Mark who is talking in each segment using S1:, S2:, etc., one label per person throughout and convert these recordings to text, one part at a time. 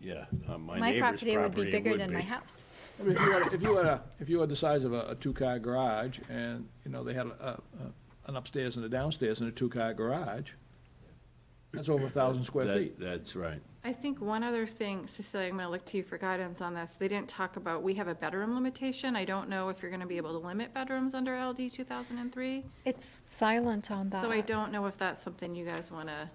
S1: Yeah, uh, my
S2: My
S1: neighbor's
S2: property would be
S1: property
S2: bigger
S1: would
S2: than my
S1: be.
S2: house.
S3: I mean, if you had, if you had a, if you had the size of a, a two-car garage, and, you know, they had a, a, an upstairs and a downstairs and a two-car garage, that's over a thousand square
S1: That-
S3: feet.
S1: That's right.
S4: I think one other thing, Cecilia, I'm going to look to you for guidance on this. They didn't talk about, we have a bedroom limitation. I don't know if you're going to be able to limit bedrooms under LD 2003.
S2: It's silent on that.
S4: So I don't know if that's something you guys want to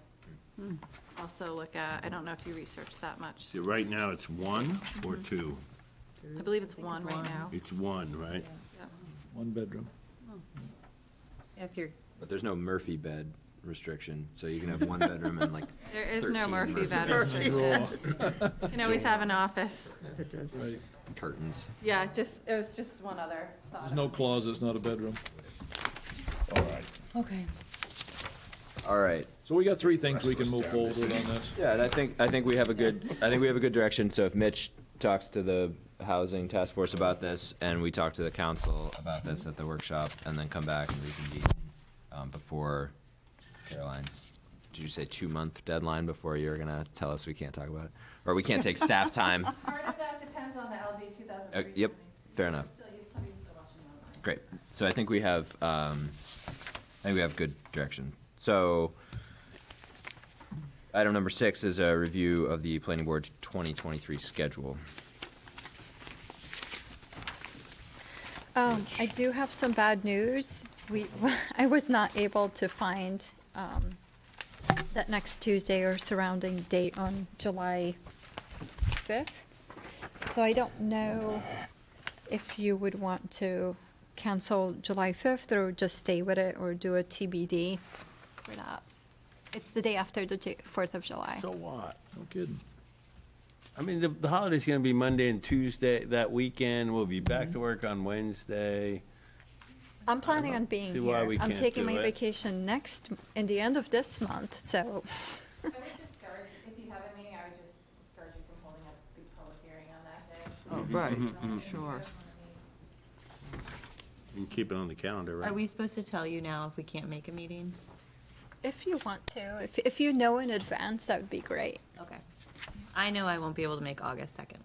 S4: Hmm. also look at. I don't know if you researched that much.
S1: See, Right now, it's one or two?
S4: I believe it's one right now.
S1: It's one, right?
S4: Yep.
S3: One bedroom.
S5: If you're,
S6: But there's no Murphy bed restriction, so you can have one bedroom and like
S4: There is no
S6: 13
S4: Murphy
S6: Murphy
S4: bed
S6: beds.
S4: restriction. You can always have an office.
S3: Right.
S6: curtains.
S4: Yeah, just, it was just one other thought.
S3: There's no closet, it's not a bedroom.
S1: All right.
S5: okay.
S6: All right.
S3: So we got three things we can move forward with on this.
S6: Yeah, and I think, I think we have a good, I think we have a good direction, so if Mitch talks to the housing task force about this, and we talk to the council about this at the workshop, and then come back and reconvene, um, before Caroline's, did you say two-month deadline before you're gonna tell us we can't talk about it? Or we can't take staff time?
S4: Part of that depends on the LD
S6: Uh,
S4: 2003.
S6: yep, fair enough.
S4: Still, you- somebody's still watching online.
S6: Great. So I think we have, um, I think we have good direction. So item number six is a review of the planning board's 2023 schedule.
S2: Um, I do have some bad news. We, I was not able to find, um, that next Tuesday or surrounding date on July fifth. So I don't know if you would want to cancel July fifth or just stay with it or do a TBD. We're not, it's the day after the Ju- Fourth of July.
S1: So what?
S3: No kidding.
S1: I mean, the, the holiday's gonna be Monday and Tuesday, that weekend, we'll be back to work on Wednesday.
S2: I'm planning on being
S1: see why
S2: here.
S1: we
S2: I'm
S1: can't
S2: taking
S1: do
S2: my
S1: it.
S2: vacation next, in the end of this month, so
S4: I would discourage, if you have a meeting, I would just discourage you from holding a big public hearing on that day.
S5: Oh, right,
S1: Mm-hmm,
S6: Mm-hmm,
S5: sure.
S1: And keep it on the calendar,
S5: Are
S1: right?
S5: we supposed to tell you now if we can't make a meeting?
S2: if you want to, if, if you know in advance, that would be great.
S5: Okay. I know I won't be able to make August 2nd.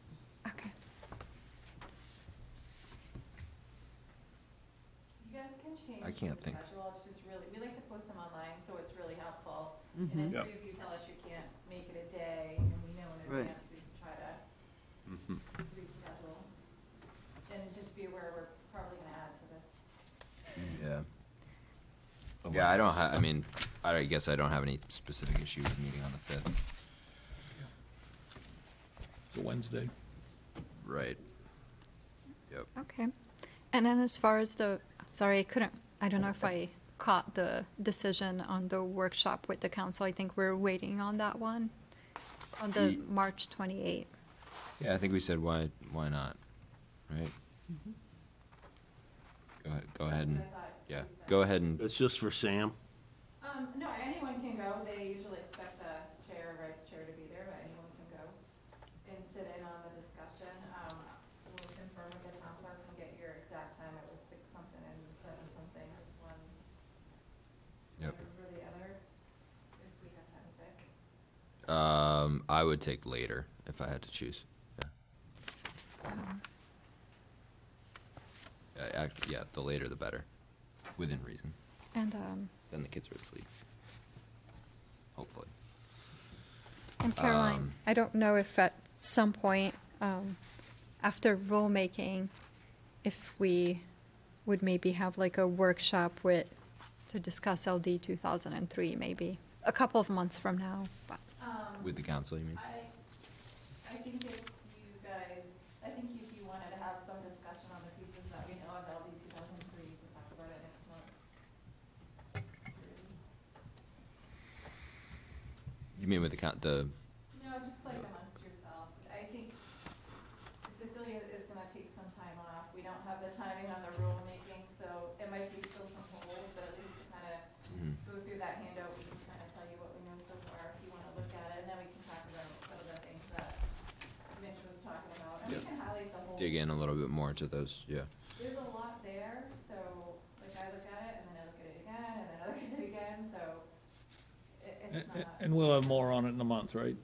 S2: Okay.
S4: You guys can change.
S6: I can't
S4: the
S6: think.
S4: Schedule, it's just really, we like to post them online, so it's really helpful.
S5: Mm-hmm.
S4: And if
S1: Yep.
S4: you if you tell us you can't make it a day, and we know in
S5: Right.
S4: advance, we can try to
S6: Mm-hmm.
S4: reschedule. And just be aware, we're probably gonna add to this.
S6: Yeah. Yeah, I don't ha, I mean, I guess I don't have any specific issue with meeting on the fifth.
S3: It's a Wednesday.
S6: Right. Yep.
S2: Okay. And then as far as the, sorry, I couldn't, I don't know if I caught the decision on the workshop with the council. I think we're waiting on that one, on the
S6: Ye-
S2: March 28th.
S6: Yeah, I think we said why, why not, right? Mm-hmm. Go ahead, go ahead and,
S4: I thought
S6: yeah,
S4: you said-
S6: go ahead and,
S1: It's just for Sam.
S4: Um, no, anyone can go. They usually expect the chair or vice chair to be there, but anyone can go and sit in on the discussion. Um, we'll confirm with the town clerk and get your exact time. It was six something and seven something is one.
S6: Yep.
S4: Or the other, if we have time to pick.
S6: um, I would take later if I had to choose.
S2: um,
S6: Yeah, Yeah, Uh, act- yeah, the later the better, within reason.
S2: And, um,
S6: Then the kids are asleep. Hopefully.
S2: And Caroline,
S6: Um,
S2: I don't know if at some point, um, after rulemaking, if we would maybe have like a workshop with, to discuss LD two thousand and three, maybe, a couple of months from now, but,
S6: With the council, you mean?
S4: Um, I, I think if you guys, I think if you wanted to have some discussion on the pieces that we know of LD two thousand three, you can talk about it next month.
S6: You mean with the coun, the,
S4: No, just like amongst yourself. I think Cecilia is gonna take some time off. We don't have the timing on the rulemaking, so it might be still some holes, but at least to kind of
S6: mhm.
S4: go through that handout, we can kind of tell you what we know so far, if you wanna look at it, and then we can talk about some of the things that Mitch was talking about. And we
S6: Yeah.
S4: can highlight the whole,
S6: dig in a little bit more to those, yeah.
S4: there's a lot there, so like I look at it, and then I look at it again, and then I look at it again, so it,
S3: And,
S4: it's not.
S6: Eh,
S3: and we'll have more on it in a month, right?